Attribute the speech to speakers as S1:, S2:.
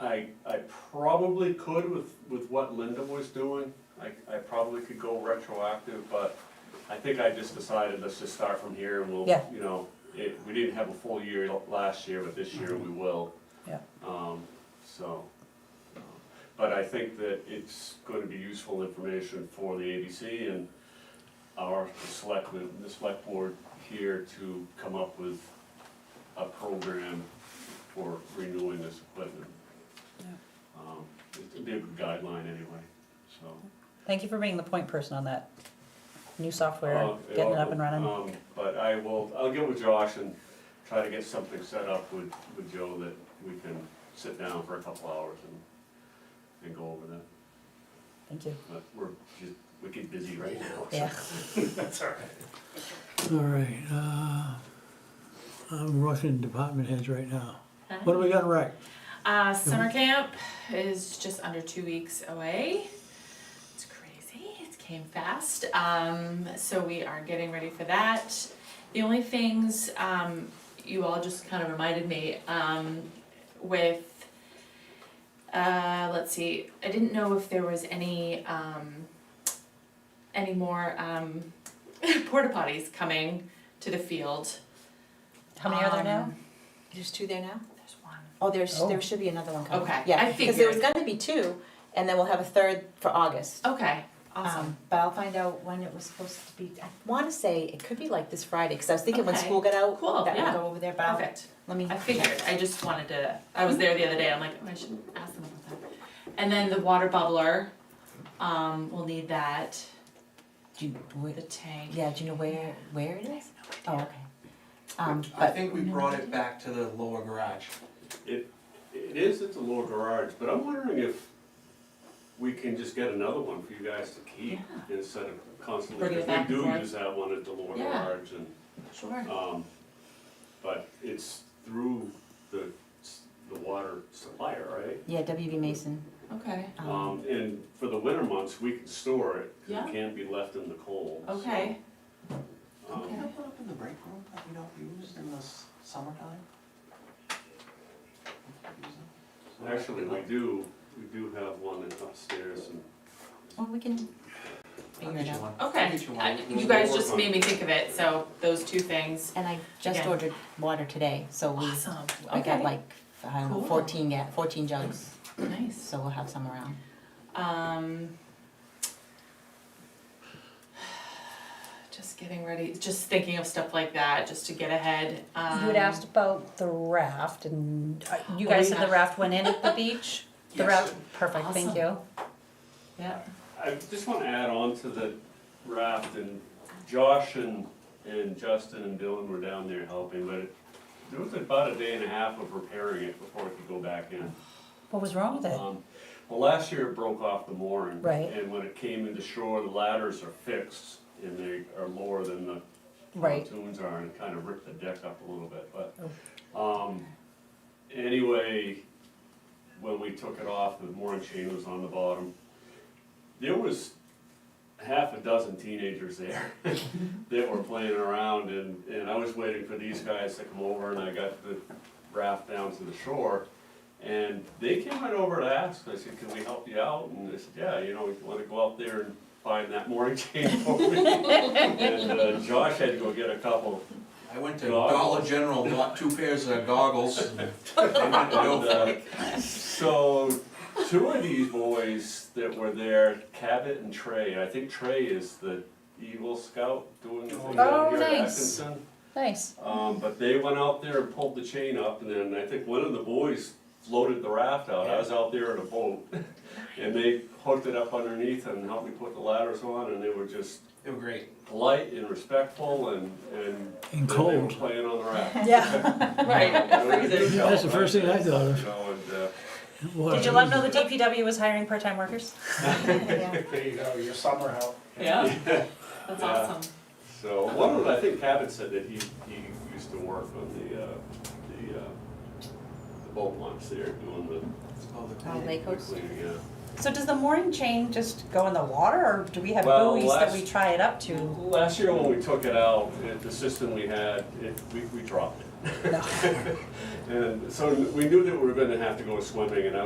S1: I, I probably could with, with what Linda was doing, I, I probably could go retroactive, but I think I just decided, let's just start from here and we'll,
S2: Yeah.
S1: you know, it, we didn't have a full year l- last year, but this year we will.
S2: Mm-hmm. Yeah.
S1: Um, so, um, but I think that it's gonna be useful information for the ABC and our selectmen, the select board here to come up with a program for renewing this equipment.
S2: Yeah.
S1: Um, It'd be a good guideline anyway, so.
S2: Thank you for being the point person on that new software,
S1: uh,
S2: getting it up and running.
S1: um, But I will, I'll get with Josh and try to get something set up with, with Joe that we can sit down for a couple hours and, and go over that.
S2: Thank you.
S1: But we're just, we get busy right now. so
S2: Yeah.
S1: That's all right.
S3: All right, uh, I'm rushing department heads right now. What do we got right?
S4: Uh, summer camp is just under two weeks away. It's crazy. It came fast. Um, so we are getting ready for that. The only things um, you all just kind of reminded me um, with, uh, let's see, I didn't know if there was any um, any more um, porta potties coming to the field.
S2: How many are there now?
S4: Um,
S5: There's two there now?
S4: There's one.
S5: Oh, there's,
S2: Oh.
S5: there should be another one coming.
S4: Okay, I
S5: Yeah, because there was
S4: figured.
S5: gonna be two, and then we'll have a third for August.
S4: Okay. Oh, Awesome.
S5: Um, But I'll find out when it was supposed to be, I wanna say it could be like this Friday, cause I was thinking when
S4: Okay.
S5: school got out,
S4: Cool,
S5: that
S4: yeah.
S5: we'll go over there, but I'll-
S4: Perfect.
S5: let me.
S4: I figured, I just wanted to, I was there the other day, I'm like, oh, I should ask them about that. And then the water bubbler, um, we'll need that,
S5: Do you,
S4: the
S5: wait,
S4: tank.
S5: yeah, do you know where, where it is? Oh, okay. Um,
S6: I
S5: but,
S6: think we brought it back to the lower garage.
S1: It, it is at the lower garage, but I'm wondering if we can just get another one for you guys to keep instead of constantly,
S4: Bring
S1: because
S4: it back
S1: we
S4: and
S1: do
S4: forth.
S1: use that one at the lower
S4: Yeah.
S1: garage and,
S4: Sure.
S1: um, but it's through the, s- the water supplier, right?
S5: yeah, WB Mason,
S4: Okay,
S5: um,
S1: Um, and for the winter months, we can store it, 'cause
S4: Oh. Yeah.
S1: it can't be left in the cold, so,
S4: okay,
S1: um,
S6: Can I put up in the break room that we don't use in the s- summertime?
S1: Actually, we do, we do have one upstairs and
S5: well, we can
S6: I'll
S5: figure
S6: get
S5: it
S6: you
S5: out.
S6: one. I'll
S4: okay.
S6: get you one.
S4: I- You guys just made me think of it, so those two things.
S5: And I just
S4: Yeah.
S5: ordered water today, so we,
S4: Awesome,
S5: I got
S4: okay,
S5: like, I don't know,
S4: Cool.
S5: fourteen ga- fourteen jugs,
S4: nice.
S5: so we'll have some around.
S4: Um. Just getting ready, just thinking of stuff like that, just to get ahead, um.
S2: You had asked about the raft and uh, you
S4: Oh,
S2: guys said
S4: yeah.
S2: the raft went in at the beach? The
S6: Yes.
S2: raft, perfect, thank
S4: Awesome.
S2: you.
S4: Yeah,
S1: I just want to add on to the raft, and Josh and, and Justin and Dylan were down there helping, but it, there was about a day and a half of repairing it before it could go back in.
S2: What was wrong with it?
S1: Um, Well, last year it broke off the mooring.
S2: Right.
S1: And when it came into shore, the ladders are fixed, and they are lower than the
S2: Right.
S1: pontoons are, and kind of ripped the deck up a little bit, but,
S2: Oh.
S1: um, anyway, when we took it off, the mooring chain was on the bottom. There was half a dozen teenagers there that were playing around, and, and I was waiting for these guys to come over, and I got the raft down to the shore. And they came right over to ask, I said, can we help you out? And they said, yeah, you know, if you wanna go out there and find that mooring chain for me. And uh, Josh had to go get a couple.
S6: I went to
S1: Goggles.
S6: Dollar General, bought two pairs of goggles. and I went to go
S1: And,
S6: for
S1: uh,
S6: it.
S1: So, two of these boys that were there, Cabot and Trey, I think Trey is the Eagle Scout doing the thing
S2: Oh,
S1: down here at
S2: nice.
S1: Atkinson.
S2: Nice.
S1: Um, but they went out there and pulled the chain up, and then I think one of the boys floated the raft out, I was out there in a boat. And they hooked it up underneath and helped me put the ladders on, and they were just
S6: They were great.
S1: polite and respectful and, and.
S3: And
S1: then they were
S3: cold.
S1: Playing on the raft.
S2: Yeah.
S4: right,
S3: That's the first thing I thought of.
S1: You know, and, uh,
S2: Did you let them know the DPW was hiring part-time workers?
S5: Yeah.
S7: There you go, your summer help.
S4: yeah, that's
S1: Yeah.
S4: awesome.
S1: So one of, I think Cabot said that he, he used to work on the, uh, the, uh, the boat launch there, doing the
S6: Oh, the
S5: Oh, Lake Host?
S1: cleaning, yeah.
S2: So does the mooring chain just go in the water or do we have
S1: Well,
S2: buoys that we
S1: last-
S2: try it up to?
S1: Last year when we took it out, it- the system we had, it, we, we dropped it. And so we knew that we were gonna have to go swimming and I